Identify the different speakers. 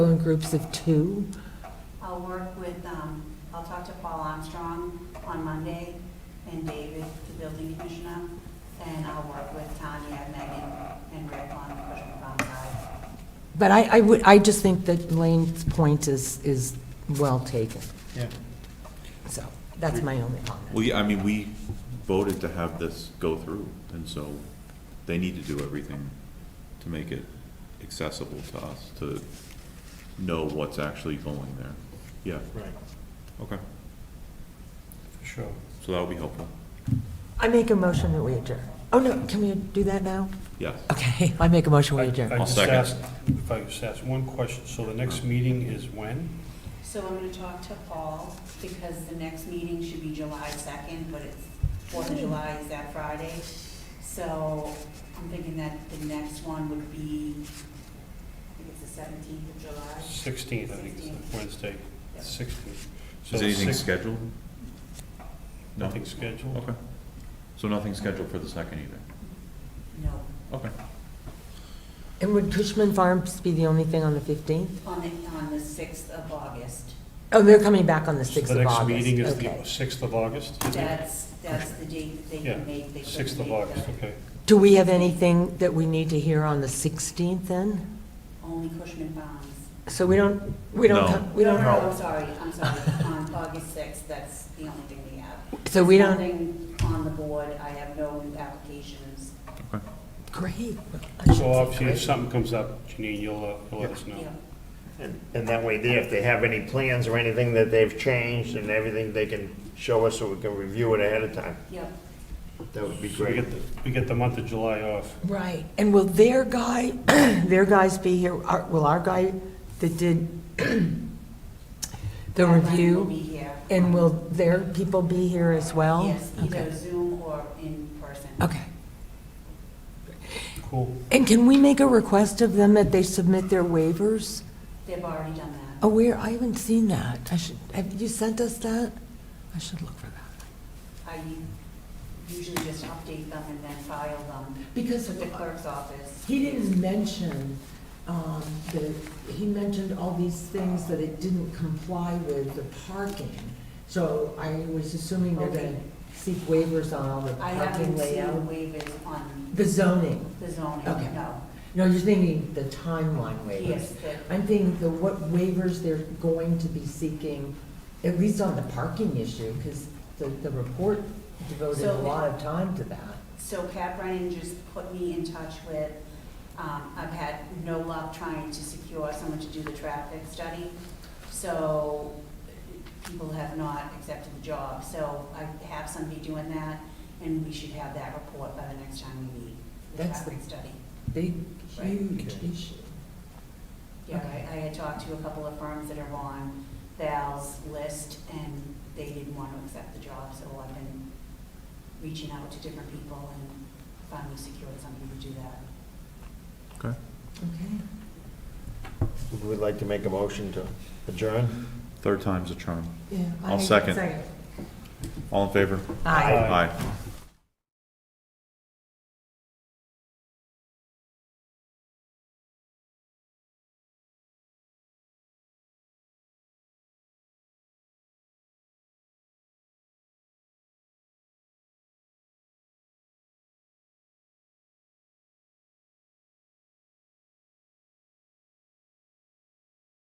Speaker 1: groups of two?
Speaker 2: I'll work with, um, I'll talk to Paul Armstrong on Monday, and David, the building commissioner, and I'll work with Tanya, Megan, and Rick on the Cushman Farm side.
Speaker 1: But I, I would, I just think that Lane's point is, is well taken,
Speaker 3: Yeah.
Speaker 1: so that's my only comment.
Speaker 4: Well, yeah, I mean, we voted to have this go through, and so they need to do everything to make it accessible to us, to know what's actually going there. Yeah,
Speaker 3: Right,
Speaker 4: okay,
Speaker 3: for sure.
Speaker 4: so that would be helpful,
Speaker 1: I make a motion that we adjourn. Oh, no, can we do that now?
Speaker 4: yes.
Speaker 1: Okay, I make a motion we
Speaker 3: I
Speaker 1: adjourn.
Speaker 4: I'll
Speaker 3: just
Speaker 4: second.
Speaker 3: asked, if I could just ask one question, so the next meeting is when?
Speaker 2: So I'm gonna talk to Paul, because the next meeting should be July second, but it's, Fourth of July is that Friday. So I'm thinking that the next one would be, I think it's the seventeenth of July.
Speaker 3: Sixteenth, I think it's Wednesday,
Speaker 2: Yep.
Speaker 3: sixteenth. So
Speaker 4: Is anything
Speaker 3: six-
Speaker 4: scheduled? No?
Speaker 3: Nothing scheduled?
Speaker 4: Okay. So nothing scheduled for the second either?
Speaker 2: No,
Speaker 4: Okay.
Speaker 1: And would Cushman Farms be the only thing on the 15th?
Speaker 2: on the, on the sixth of August.
Speaker 1: Oh, they're coming back on the 6th
Speaker 3: So
Speaker 1: of August.
Speaker 3: The next meeting is
Speaker 1: Okay.
Speaker 3: the sixth of August? is it?
Speaker 2: That's, that's the date that they
Speaker 3: Yeah,
Speaker 2: can make. They
Speaker 3: Sixth of
Speaker 2: couldn't make
Speaker 3: August,
Speaker 2: the-
Speaker 3: okay.
Speaker 1: Do we have anything that we need to hear on the 16th then?
Speaker 2: Only Cushman Farms.
Speaker 1: So we don't, we don't,
Speaker 4: No.
Speaker 1: co- we don't,
Speaker 2: No, no, I'm sorry, I'm sorry. On August 6th, that's the only thing we have.
Speaker 1: so we don't,
Speaker 2: Nothing on the board. I have no new applications.
Speaker 4: Okay.
Speaker 1: great. I should say
Speaker 3: So obviously,
Speaker 1: great.
Speaker 3: if something comes up, Janine, you'll, uh, you'll let us know.
Speaker 2: Yeah.
Speaker 5: And and that way, there, if they have any plans or anything that they've changed and everything, they can show us so we can review it ahead of time.
Speaker 2: Yep,
Speaker 5: That would be
Speaker 3: So we
Speaker 5: great.
Speaker 3: get, the we get the month of July off.
Speaker 1: Right, and will their guy, their guys be here, Our- will our guy that did the
Speaker 2: Madeline will
Speaker 1: review?
Speaker 2: be here.
Speaker 1: And will their people be here as well?
Speaker 2: Yes,
Speaker 1: Okay.
Speaker 2: either Zoom or in person.
Speaker 1: Okay.
Speaker 3: Cool.
Speaker 1: And can we make a request of them that they submit their waivers?
Speaker 2: They've already done that.
Speaker 1: Oh, where, I haven't seen that. I should, have you sent us that? I should look for that. Oh.
Speaker 2: I usually just update them and then file them
Speaker 1: Because
Speaker 2: with the clerk's office.
Speaker 1: he didn't mention, um, the, he mentioned all these things that it didn't comply with the parking. So I was assuming they're
Speaker 2: Okay.
Speaker 1: gonna seek waivers on all the
Speaker 2: I haven't
Speaker 1: parking
Speaker 2: seen
Speaker 1: layout.
Speaker 2: waivers on
Speaker 1: The zoning.
Speaker 2: the zoning,
Speaker 1: Okay.
Speaker 2: no.
Speaker 1: No, you're thinking the timeline waivers.
Speaker 2: Yes, the-
Speaker 1: I'm thinking the, what waivers they're going to be seeking, at least on the parking issue, because the, the report devoted a
Speaker 2: So-
Speaker 1: lot of time to that.
Speaker 2: so Pat Brennan just put me in touch with, um, I've had no luck trying to secure someone to do the traffic study. So people have not accepted the job. So I have somebody doing that, and we should have that report by the next time we meet, the
Speaker 1: That's the-
Speaker 2: traffic study.
Speaker 1: Big,
Speaker 2: Right.
Speaker 1: huge issue.
Speaker 2: Yeah, I, I had talked to a couple of firms that are on Val's list, and they didn't want to accept the job, so I've been reaching out to different people and finally secured somebody to do that.
Speaker 4: Okay.
Speaker 1: Okay.
Speaker 5: We'd like to make a motion to adjourn.
Speaker 4: Third time's a charm.
Speaker 1: Yeah.
Speaker 4: I'll
Speaker 1: I-
Speaker 4: second. All in favor?
Speaker 1: Aye.
Speaker 4: Aye.